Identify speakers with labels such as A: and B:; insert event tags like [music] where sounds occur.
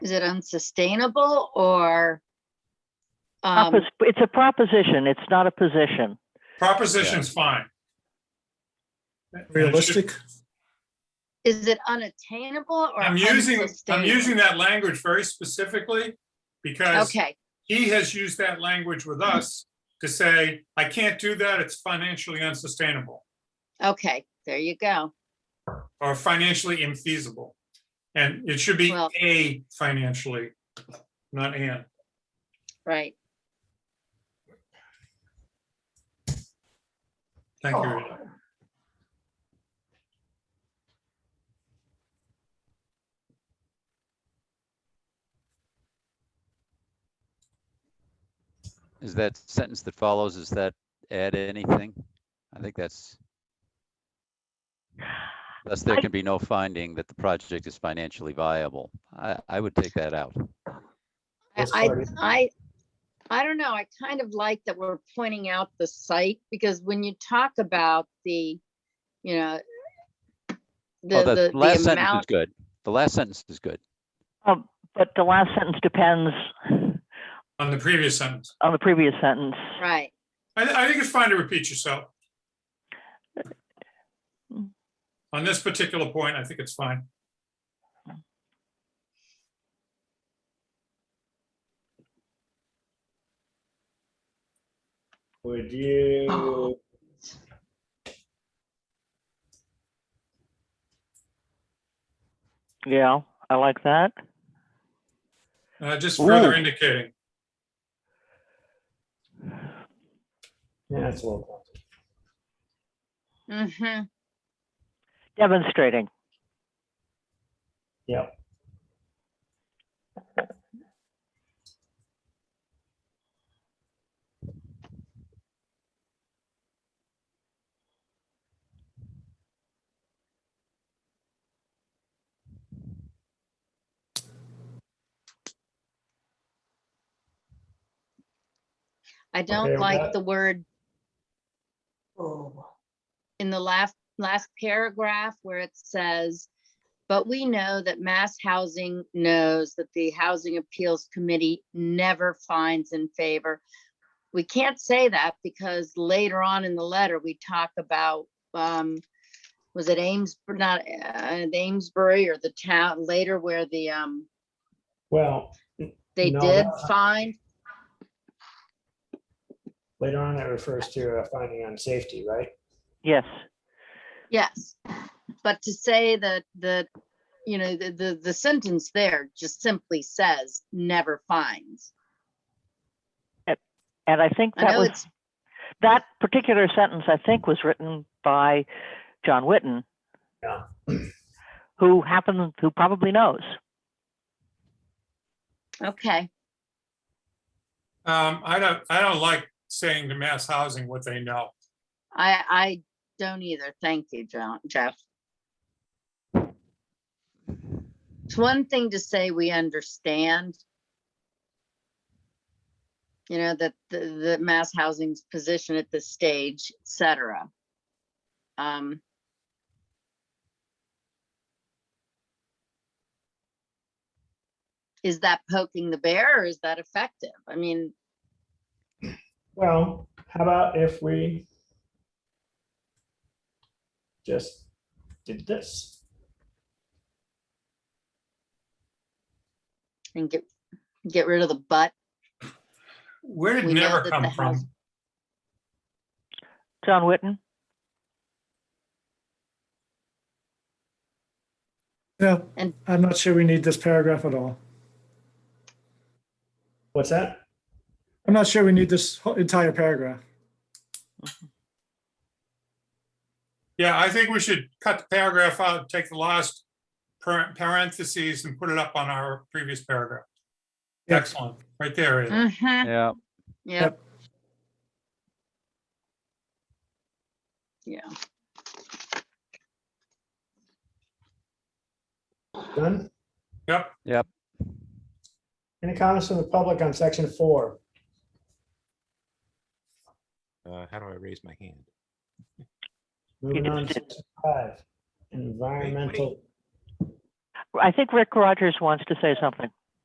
A: Is it unsustainable or? um,
B: Propos- It's a proposition. It's not a position.
C: Proposition's fine. And it should-
D: Realistic?
A: Is it unattainable or?
C: I'm using, I'm
A: unsustainable?
C: using that language very specifically because
A: Okay,
C: he has used that language with us to say, I can't do that, it's financially unsustainable
A: okay, there you go.
C: or financially infeasible. And it should be
A: Well-
C: a financially, not an.
A: Right.
C: Thank you. Rita.
A: Oh.
E: Is that sentence that follows, is that add anything? I think that's. Thus, there
B: I-
E: can be no finding that the project is financially viable. I, I would take that out.
A: I,
D: That's
A: I,
D: fine.
A: I, I don't know. I kind of like that we're pointing out the site because when you talk about the, you know,
E: Oh,
A: the,
E: the
A: the,
E: last
A: the
E: sentence is
A: amount,
E: good. The last sentence is good.
B: Um, But the last sentence depends
C: On the previous sentence.
B: on the previous sentence.
A: right,
C: I, I think it's fine to repeat yourself.
A: Uh,
B: Mm.
C: On this particular point, I think it's fine.
D: Would you?
B: Yeah, I like that.
C: Uh, just further
B: Ooh.
C: indicating.
D: [sighs] Yeah, it's a little.
A: hmm
B: Demonstrating.
D: Yeah.
A: I
D: Okay
A: don't
D: with
A: like
D: that?
A: the word in the last, last paragraph where it says, but we know that mass housing knows that the Housing Appeals Committee never finds in favor. We can't say that because later on in the letter, we talk about, um, was it Ames, not, uh, Amesbury or the town later where the, um,
D: Well,
A: they
D: No,
A: did
D: that-
A: find,
D: later on, it refers to a finding on safety, right?
B: Yes.
A: yes. But to say that, that, you know, the, the, the sentence there just simply says, never finds.
B: And I think
A: I
B: that
A: know
B: was,
A: it's,
B: that particular sentence, I think, was written by John Witten.
D: Yeah.
B: Who happened, who probably knows.
A: okay,
C: Um, I don't, I don't like saying to mass housing what they know.
A: I, I don't either, thank you, Jo- Jeff. It's one thing to say we understand. You know, that the, the mass housing's position at this stage, et cetera. Um, Is that poking the bear or is that effective? I mean,
D: Well, how about if we just did this?
A: and get, get rid of the butt.
C: Where did
A: We know
C: never
A: that
C: come
A: the house-
C: from?
B: John Witten?
F: Yeah,
A: And-
F: I'm not sure we need this paragraph at all.
D: What's that?
F: I'm not sure we need this whole entire paragraph.
C: Yeah, I think we should cut the paragraph out, take the last par- parentheses and put it up on our previous paragraph.
F: Yeah.
C: Excellent, right there. Ed.
A: Mm-hmm,
E: Yeah.
A: yeah.
F: Yep.
A: Yeah,
D: Done?
C: Yep,
D: Any comments from the public on section four?
G: Uh, how do I raise my hand?
D: Moving on to
B: just did.
D: section five, environmental.
B: I think Rick Rogers wants to say something.